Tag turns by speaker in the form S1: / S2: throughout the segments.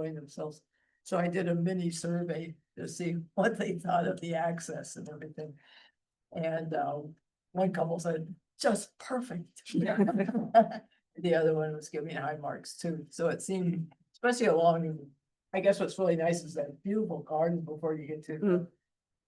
S1: enjoying themselves. So I did a mini survey to see what they thought of the access and everything. And um, one couple said, just perfect. The other one was giving high marks too, so it seemed, especially along, I guess what's really nice is that beautiful garden before you get to the.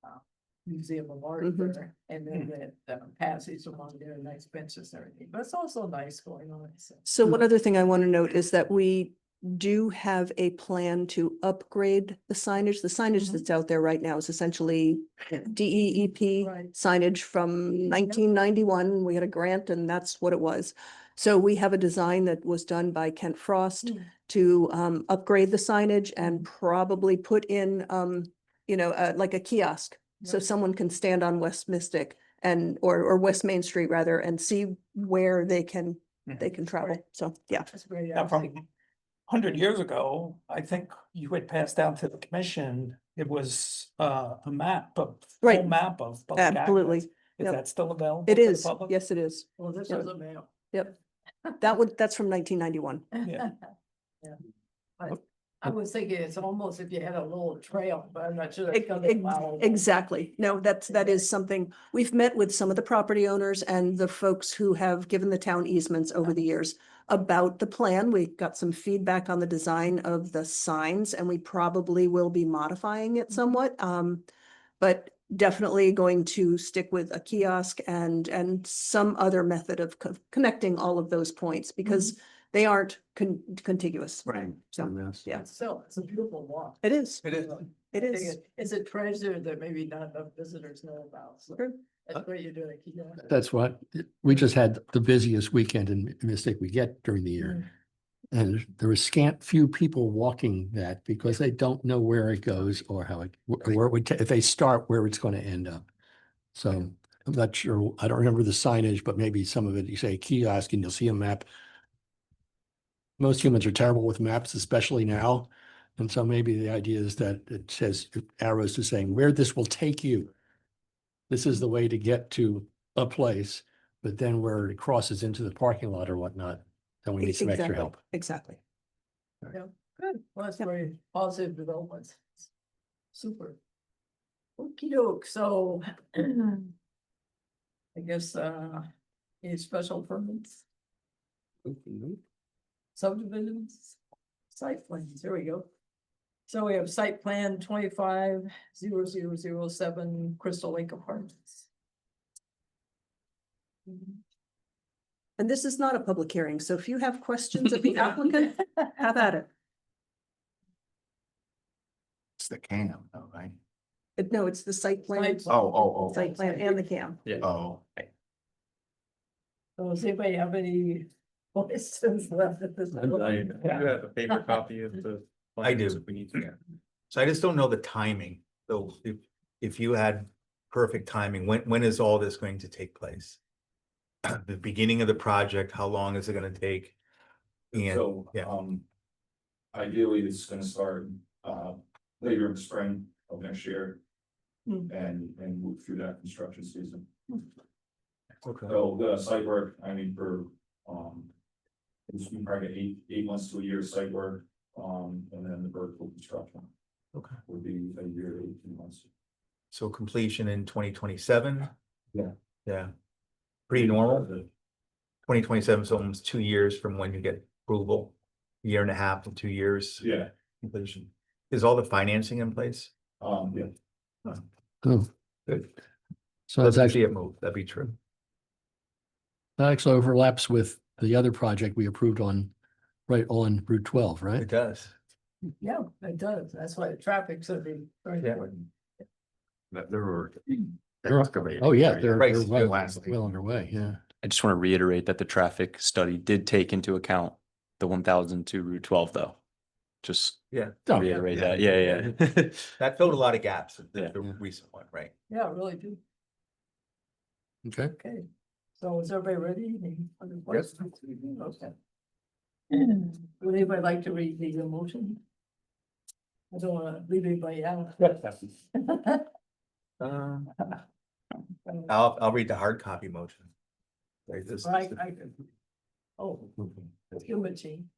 S1: uh, Museum of Art
S2: Mhm.
S1: there, and then the um, passage along there, nice benches and everything, but it's also nice going on. so.
S2: So one other thing I want to note is that we do have a plan to upgrade the signage. The signage
S1: Mhm.
S2: that's out there right now is essentially DEEP
S1: Right.
S2: signage from
S1: Yep.
S2: nineteen ninety-one. We had a grant and that's what it was. So we have a design that was done by Kent Frost
S1: Mm.
S2: to um upgrade the signage and probably put in um, you know, uh, like a kiosk. So
S1: Right.
S2: someone can stand on West Mystic and, or or West Main Street rather, and see where they can they
S3: Mm-hmm.
S2: can travel. So, yeah.
S1: That's great.
S3: Now,
S1: actually.
S3: from hundred years ago, I think you had passed down to the commission, it was uh a map of.
S2: Right.
S3: full Map of. public access.
S2: Absolutely.
S3: Is
S2: Yep.
S3: that still available?
S2: It
S3: to the
S2: is.
S3: public?
S2: Yes, it is.
S1: Well, this
S2: Yeah.
S1: was a male.
S2: Yep. That would, that's from nineteen ninety-one.
S1: Yeah. But I was thinking it's almost if you had a little trail, but I'm not sure. that's gonna allow-
S2: Exactly. No, that's, that is something, we've met with some of the property owners and the folks who have given the town easements over the years about the plan. We got some feedback on the design of the signs and we probably will be modifying it somewhat. Um, but definitely going to stick with a kiosk and, and some other method of co- connecting all of those points because they aren't con- contiguous.
S4: Right.
S2: So,
S4: yes.
S2: yeah.
S1: So it's a beautiful walk.
S2: It is,
S4: It is.
S2: it
S1: I think
S2: is.
S1: it- It's a treasure that maybe not enough visitors know about. So
S2: True.
S1: that's what you're doing. keep going.
S4: That's what, we just had the busiest weekend in Mystic we get during the year. And there were scant few people walking that because they don't know where it goes or how it, where it would, ta- if they start, where it's going to end up. So I'm not sure, I don't remember the signage, but maybe some of it, you say kiosk and you'll see a map. Most humans are terrible with maps, especially now. And so maybe the idea is that it says arrows to saying where this will take you. This is the way to get to a place, but then where it crosses into the parking lot or whatnot, then we need some extra
S2: E, Exactly,
S4: help.
S2: Exactly.
S1: Good. Well, that's
S2: Yep.
S1: very positive developments. Super. Okey doke, so. I guess, uh, any special permits? subdivisions, site plans, here we go. So we have site plan twenty-five zero zero zero seven Crystal Lake Apartments.
S2: Mm-hmm. And this is not a public hearing, so if you have questions of the applicant, have at it.
S5: It's the cam, though, right?
S2: Uh, No, it's the site plan,
S1: Site-
S5: Oh, oh,
S2: site plan and the CAM.
S5: oh, oh.
S1: So does anybody have any questions left at this?
S6: I do
S1: Yeah.
S6: have a paper copy of the.
S5: I
S6: plans
S5: do.
S6: if We need to.
S5: So I just don't know the timing, though, if, if you had perfect timing, when, when is all this going to take place? The beginning of the project, how long is it gonna take? And,
S6: So,
S5: yeah.
S6: um. Ideally, it's gonna start, uh, later in the spring of next year.
S1: Hmm.
S6: And, and move through that construction season.
S5: Okay.
S6: So the site work, I mean, for, um. It's been probably eight, eight months to a year of site work, um, and then the vertical construction
S5: Okay.
S6: would be a year, eighteen months.
S5: so completion in twenty twenty-seven?
S6: Yeah.
S5: Yeah. Pretty normal, twenty twenty-seven is almost two years from when you get approval, year and a half to two years.
S6: Yeah,
S5: Completion. Is all the financing in place?
S6: um, yeah.
S4: Oh,
S5: Good.
S4: so
S5: That's
S4: it's actually,
S5: actually a move, that'd be true.
S4: that actually overlaps with the other project we approved on, right on Route twelve,
S5: It
S4: right?
S5: does.
S1: Yeah, it does. That's why the traffic's gonna be very
S5: Yeah.
S1: important.
S7: that there were.
S6: Hmm.
S4: They're-
S7: excavating,
S4: Oh, yeah,
S7: right?
S4: they're,
S5: Right,
S4: they're well
S7: lastly.
S4: well underway, yeah.
S8: I just want to reiterate that the traffic study did take into account the one thousand to Route twelve though. Just
S4: Oh, yeah.
S8: reiterate
S5: yeah.
S8: that, yeah, yeah.
S5: That filled a lot of gaps, the,
S8: Yeah.
S5: the
S4: Yeah.
S5: recent one, right?
S1: Yeah, it really do.
S4: Okay.
S1: Okay. So is everybody ready? Any other questions? Okay. Would anybody like to read the motion? I don't wanna leave anybody out.
S6: Uh.
S5: Um,
S1: Um,
S5: I'll, I'll read the hard copy motion. Right, this-
S1: Right, I can. Oh,
S5: Okay.
S1: human machine.